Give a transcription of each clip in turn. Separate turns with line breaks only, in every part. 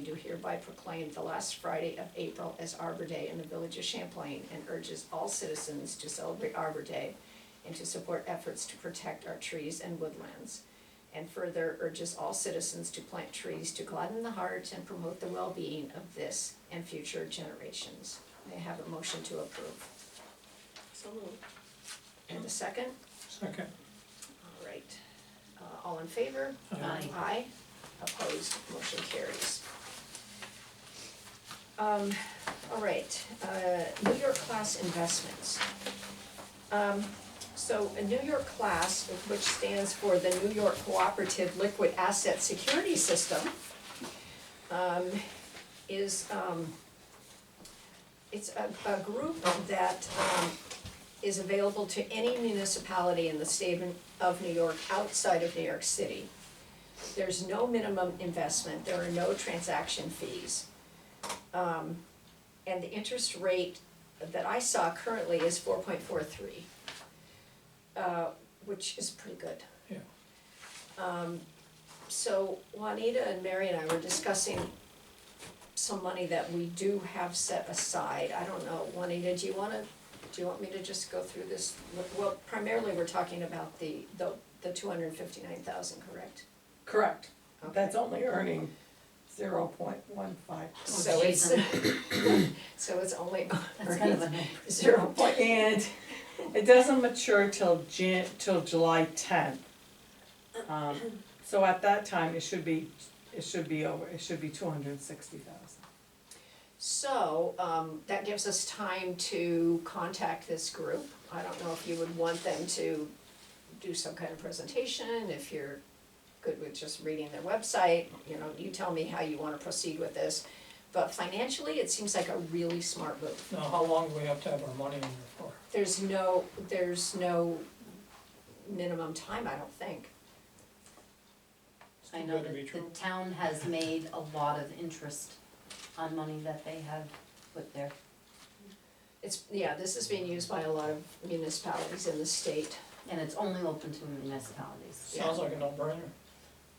do hereby proclaim the last Friday of April as Arbor Day in the village of Champlain and urges all citizens to celebrate Arbor Day and to support efforts to protect our trees and woodlands. And further urges all citizens to plant trees to gladden the heart and promote the well-being of this and future generations. May I have a motion to approve?
So moved.
And a second?
Second.
All right. Uh, all in favor?
Aye.
Aye. Opposed, motion carries. Um, all right, uh, New York class investments. Um, so a New York class, which stands for the New York Cooperative Liquid Asset Security System, um, is, um, it's a, a group that, um, is available to any municipality in the state of New York outside of New York City. There's no minimum investment, there are no transaction fees. Um, and the interest rate that I saw currently is four point four three, uh, which is pretty good.
Yeah.
Um, so Juanita and Mary and I were discussing some money that we do have set aside, I don't know, Juanita, do you wanna do you want me to just go through this? Well, primarily, we're talking about the, the, the two hundred and fifty-nine thousand, correct?
Correct,
Okay.
that's only earning zero point one five.
Oh,
Oh,
So it's, so it's only
That's kind of a no.
zero point,
And it doesn't mature till Jan, till July tenth. Um, so at that time, it should be, it should be over, it should be two hundred and sixty thousand.
so, um, that gives us time to contact this group. I don't know if you would want them to do some kind of presentation, if you're good with just reading their website, you know, you tell me how you wanna proceed with this. But financially, it seems like a really smart move.
Now, how long do we have to have our money in there for?
There's no, there's no minimum time, I don't think.
It's
I
too
know
good to
that
be
the
true.
town has made a lot of interest on money that they have put there.
It's, yeah, this is being used by a lot of municipalities in the state,
And it's only open to municipalities.
yeah.
Sounds like a no-brainer.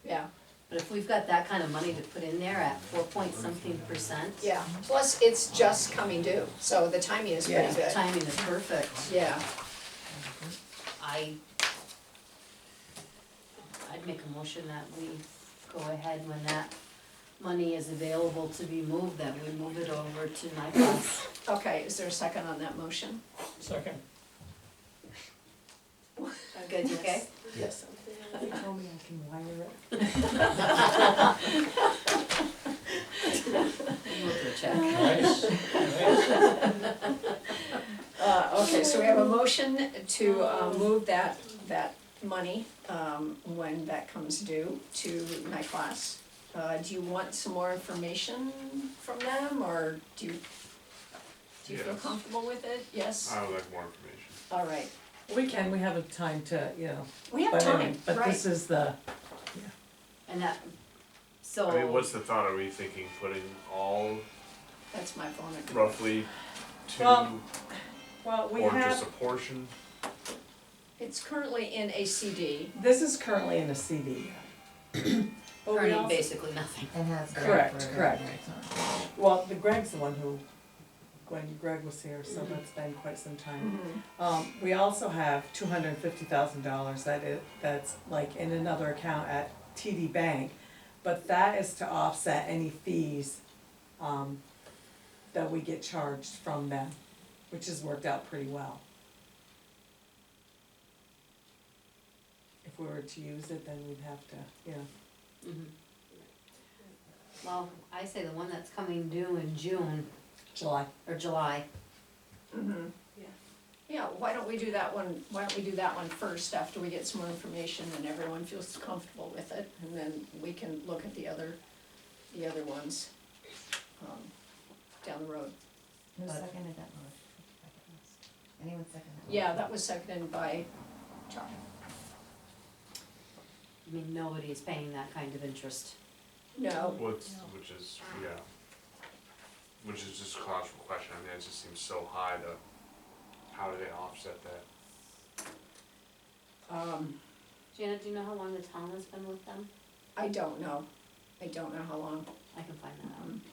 yeah,
But if we've got that kind of money to put in there at four point something percent.
yeah. Plus, it's just coming due, so the timing is pretty
Yeah.
good,
Timing is perfect.
yeah.
I, I'd make a motion that we go ahead when that money is available to be moved, that we move it over to NICOS.
Okay, is there a second on that motion?
Second,
I'm good, you okay?
Yes.
Something.
Tell me I can wire it.
Move the check.
nice, nice.
Uh, okay, so we have a motion to, uh, move that, that money, um, when that comes due to my class. Uh, do you want some more information from them, or do you, do you feel
Yes. Uh,
comfortable with it? Yes?
I would like more information.
All right,
We can, we have a time to, you know,
we have
but I
time,
mean, but
right?
this is the,
And that, so.
I mean, what's the thought? Are we thinking putting all
That's my phone number.
roughly two
Well, well, we
or just a
have,
portion?
It's currently in a CD.
this is currently in a CD. But we
earning
also-
basically nothing.
And has that
Correct,
for-
correct. Well, the Greg's the one who, when Greg was here, so that's been quite some time. Um, we also have two hundred and fifty thousand dollars that is, that's like in another account at TD Bank. But that is to offset any fees, um, that we get charged from them, which has worked out pretty well. If we were to use it, then we'd have to, you know,
Mm-hmm. Well, I say the one that's coming due in June
July.
or July.
Mhm.
Yeah.
Yeah, why don't we do that one, why don't we do that one first after we get some more information and everyone feels comfortable with it? And then we can look at the other, the other ones, um, down the road.
Who
But-
seconded that motion? Anyone second that?
Yeah, that was seconded by Charlie.
I mean, nobody is paying that kind of interest.
No,
What's which is yeah, which is just a logical question. I mean, it just seems so high. To how do they offset that?
um,
Janet, do you know how long the town has been with them?
I don't know. I don't know how long. um,
I can find that out.